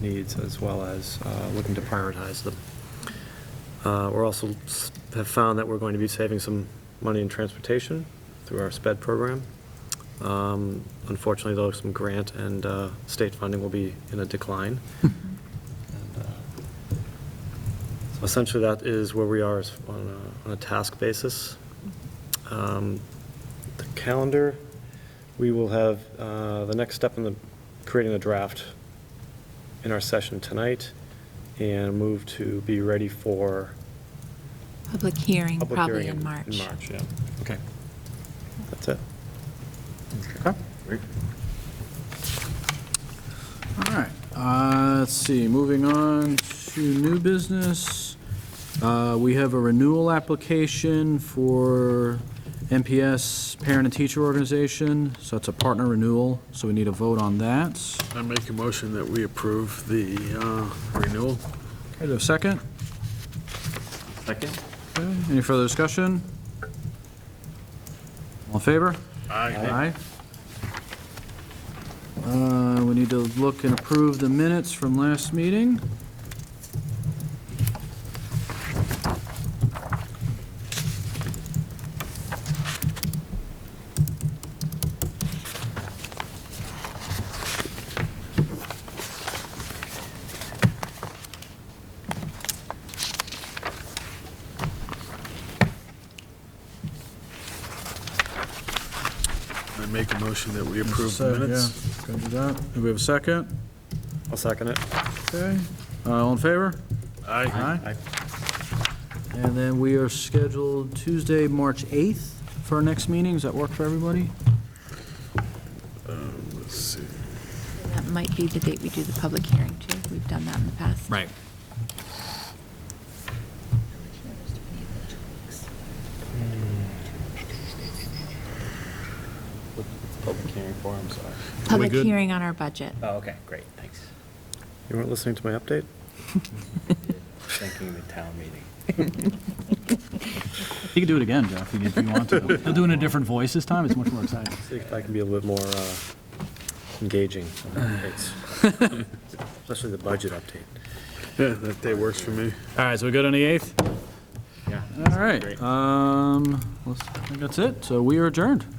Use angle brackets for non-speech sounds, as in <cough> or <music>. needs as well as uh, looking to prioritize them. Uh, We're also s- have found that we're going to be saving some money in transportation through our SPED program. Um, Unfortunately, though, some grant and uh, state funding will be in a decline. And, uh, so Essentially, that is where we are is on a- on a task basis. Um, The calendar, we will have, uh, the next step in the, creating the draft in our session tonight and move to be ready for Public hearing, public probably hearing in March. In March, yeah. Okay. That's it. Okay. All right, uh, let's see, moving on to new business. Uh, We have a renewal application for NPS Parent and Teacher Organization, so it's a partner renewal, so we need a vote on that. I make a motion that we approve the uh, renewal. Okay, do I have a second? Second? Okay, Any further discussion? All in favor? Aye. Uh, We need to look and approve the minutes from last meeting. I make a motion that we approve the minutes. Yeah, Gonna do that. Do we have a second? I'll second it. Okay. Uh, All in favor? Aye. Aye. And then we are scheduled Tuesday, March 8th for our next meeting. Does that work for everybody? Um, Let's see. That might be the date we do the public hearing, too. We've done that in the past. Right. Hmm. Public hearing for, I'm sorry. Public good? hearing on our budget. Oh, okay, great, thanks. You weren't listening to my update? Thinking the town meeting. You can do it again, Jeff, if you want to. They'll do it in a different voice this time. It's much more exciting. See if I can be a little bit more uh, <sighs> engaging. <laughs> It's- Especially the budget update. Yeah, that day works for me. All right, so we good on the 8th? Yeah. All right. Um, let's- I think that's it. So we are adjourned.